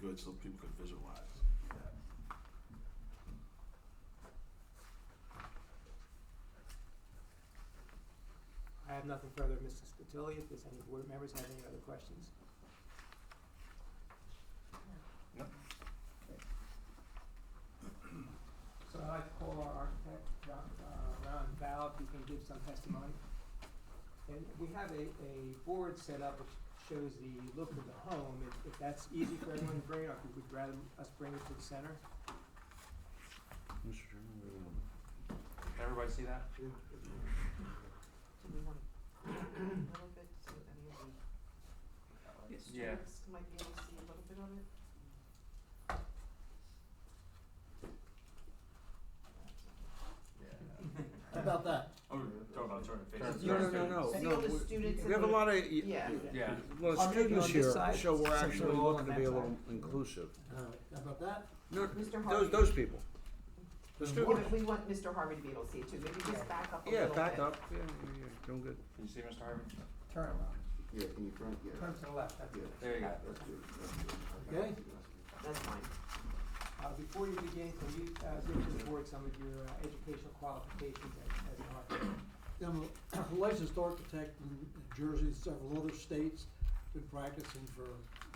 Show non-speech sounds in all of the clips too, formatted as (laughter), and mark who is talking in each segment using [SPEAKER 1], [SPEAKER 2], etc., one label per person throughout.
[SPEAKER 1] good so people could visualize that.
[SPEAKER 2] I have nothing further, Mr. Spatilli, if there's any board members have any other questions.
[SPEAKER 1] No.
[SPEAKER 2] So I'd like to call our architect, Ron, uh, Ron Val, if he can give some testimony. And we have a, a board set up which shows the look of the home, if, if that's easy for everyone to bring, or if you'd rather us bring it to the center.
[SPEAKER 3] Mr. Chairman, we will
[SPEAKER 4] Everybody see that?
[SPEAKER 5] Do we want a little bit so any of the
[SPEAKER 4] Yeah.
[SPEAKER 5] students might be able to see a little bit of it?
[SPEAKER 4] Yeah.
[SPEAKER 6] How about that?
[SPEAKER 4] Oh, talking about turning faces.
[SPEAKER 6] No,
[SPEAKER 3] no, no, Oh, no.
[SPEAKER 5] See all the
[SPEAKER 3] we-
[SPEAKER 5] students in
[SPEAKER 3] We have a
[SPEAKER 5] the-
[SPEAKER 3] lot of,
[SPEAKER 5] Yeah.
[SPEAKER 4] Yeah.
[SPEAKER 3] a lot
[SPEAKER 2] I'll
[SPEAKER 3] of
[SPEAKER 2] make it
[SPEAKER 3] students
[SPEAKER 2] on
[SPEAKER 3] here,
[SPEAKER 2] this side,
[SPEAKER 3] so we're
[SPEAKER 2] so
[SPEAKER 3] actually
[SPEAKER 2] we're all
[SPEAKER 3] looking
[SPEAKER 2] on
[SPEAKER 3] to
[SPEAKER 2] that
[SPEAKER 3] be a
[SPEAKER 2] side.
[SPEAKER 3] little inclusive.
[SPEAKER 6] All right, how about that?
[SPEAKER 3] No,
[SPEAKER 5] Mr. Harvey.
[SPEAKER 3] those, those people. The
[SPEAKER 5] Yeah,
[SPEAKER 3] students,
[SPEAKER 5] but we want Mr. Harvey to be able to see it too, maybe just back up a
[SPEAKER 3] yeah,
[SPEAKER 5] little bit.
[SPEAKER 3] back up, yeah, yeah, yeah, doing good.
[SPEAKER 4] Can you see Mr. Harvey?
[SPEAKER 2] Turn around,
[SPEAKER 6] Yeah, in front,
[SPEAKER 2] turn to the left, that's it.
[SPEAKER 4] There you go.
[SPEAKER 2] Okay?
[SPEAKER 5] That's fine.
[SPEAKER 2] Uh, before you begin, can you, uh, give to the board some of your uh, educational qualifications as, as an architect?
[SPEAKER 6] I'm a licensed architect in Jersey, and several other states, been practicing for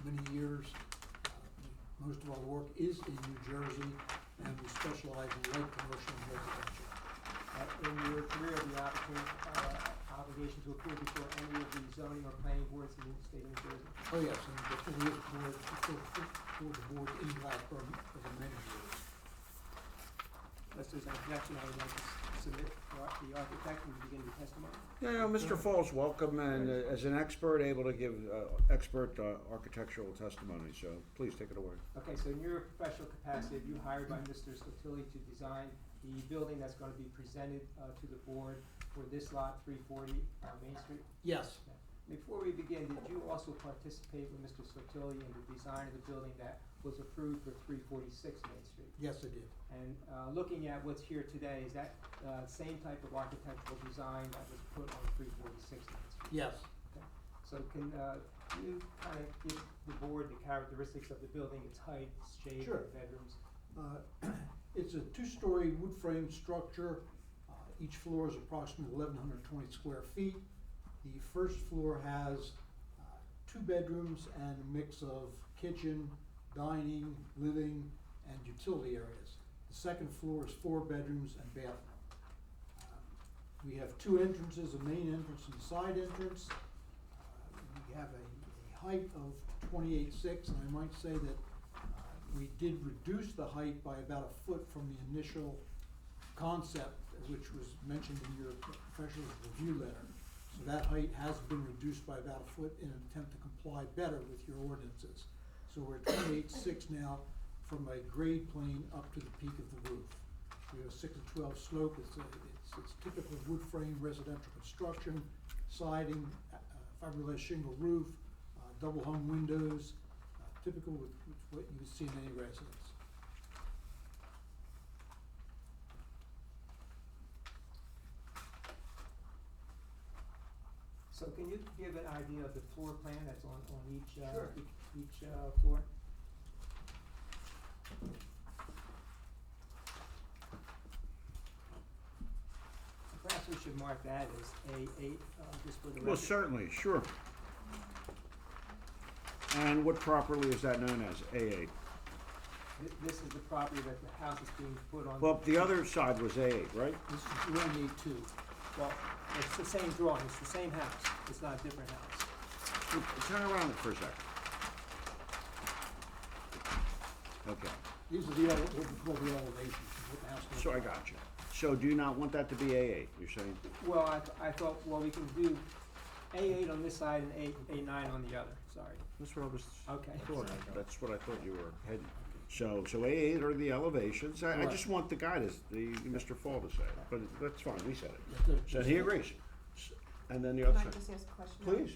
[SPEAKER 6] many years. Uh, Most of our work is in New Jersey, and we specialize in light commercial and residential.
[SPEAKER 2] uh, in your career the opportunity, uh, obligation to appear before any of the zoning or planning boards in the state of New Jersey.
[SPEAKER 6] Oh, yes, and before the board, before, before the board in Blackburn for the many years.
[SPEAKER 2] Unless there's an objection, I would like to s- submit for ar- the architect and begin the testimony.
[SPEAKER 3] Yeah, yeah, Mr. Falls, welcome, and uh, as an expert, able to give uh, expert uh, architectural testimony, so please take it away.
[SPEAKER 2] Okay, so in your professional capacity, you hired by Mr. Sotilli to design the building that's gonna be presented, uh, to the board for this lot, three forty, uh, Main Street?
[SPEAKER 6] Yes,
[SPEAKER 2] Before we begin, did you also participate with Mr. Sotilli in the design of the building that was approved for three forty-six Main Street?
[SPEAKER 6] yes, I did.
[SPEAKER 2] And uh, looking at what's here today, is that uh, same type of architectural design that was put on three forty-six Main Street?
[SPEAKER 6] Yes,
[SPEAKER 2] So can uh, you kind of give the board the characteristics of the building, its height, its shape,
[SPEAKER 6] Sure.
[SPEAKER 2] the bedrooms?
[SPEAKER 6] Uh, (clears throat) It's a two-story wood frame structure. Uh, Each floor is approximately eleven hundred twenty square feet. The first floor has uh, two bedrooms and a mix of kitchen, dining, living, and utility areas. The second floor is four bedrooms and bathroom. Uh, We have two entrances, a main entrance and a side entrance. Uh, We have a, a height of twenty-eight six, and I might say that uh, we did reduce the height by about a foot from the initial concept, which was mentioned in your professional review letter. So that height has been reduced by about a foot in an attempt to comply better with your ordinances. So we're at twenty-eight six now from a grade plane up to the peak of the roof. We have a six to twelve slope, it's a, it's, it's typical wood frame residential construction, siding, uh, fiberglass shingle roof, uh, double hung windows, uh, typical with, with what you would see in any residence.
[SPEAKER 2] So can you give an idea of the floor plan that's on, on each, uh,
[SPEAKER 6] Sure.
[SPEAKER 2] each- each uh, floor? Perhaps we should mark that as A eight, uh, just for the record.
[SPEAKER 3] Well, certainly, sure. And what properly is that known as, A8?
[SPEAKER 2] Th- This is the property that the house is being put on.
[SPEAKER 3] Well, the other side was A8, right?
[SPEAKER 6] This is one eight two.
[SPEAKER 2] Well, it's the same drawing, it's the same house, it's not a different house.
[SPEAKER 3] Look, Turn around for a second. Okay,
[SPEAKER 6] These are the, ele- what we call the elevations, what the house looks
[SPEAKER 3] so I
[SPEAKER 6] like.
[SPEAKER 3] got you. So do you not want that to be A8, you're saying?
[SPEAKER 2] Well, I, th- I thought, well, we can do A eight on this side and eight, A nine on the other, sorry.
[SPEAKER 3] That's what I was.
[SPEAKER 2] Okay.
[SPEAKER 3] thought. That's what I thought you were heading. So, so A8 are the elevations. I, I just want the guy to, s- the, Mr. Fall to say it, but that's fine, we said it.
[SPEAKER 6] That they're
[SPEAKER 3] So
[SPEAKER 6] just-
[SPEAKER 3] he agrees. S- And then the
[SPEAKER 5] Can
[SPEAKER 3] other
[SPEAKER 5] I
[SPEAKER 3] side,
[SPEAKER 5] just ask a question?
[SPEAKER 3] please.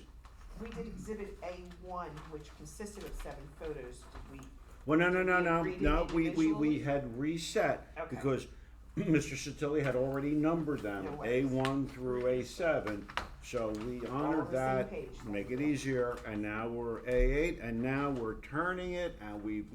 [SPEAKER 5] We did exhibit A one, which consisted of seven photos, did we,
[SPEAKER 3] Well, no, no, no,
[SPEAKER 5] We
[SPEAKER 3] no,
[SPEAKER 5] agreed
[SPEAKER 3] no, we, we, we
[SPEAKER 5] individually?
[SPEAKER 3] had reset,
[SPEAKER 5] Okay.
[SPEAKER 3] because (clears throat) Mr. Satilli had already numbered them,
[SPEAKER 5] No
[SPEAKER 3] A
[SPEAKER 5] worries.
[SPEAKER 3] one through A seven. So we
[SPEAKER 5] on
[SPEAKER 3] honored
[SPEAKER 5] the same
[SPEAKER 3] that,
[SPEAKER 5] page.
[SPEAKER 3] make it easier, and now we're A eight, and now we're turning it, and we've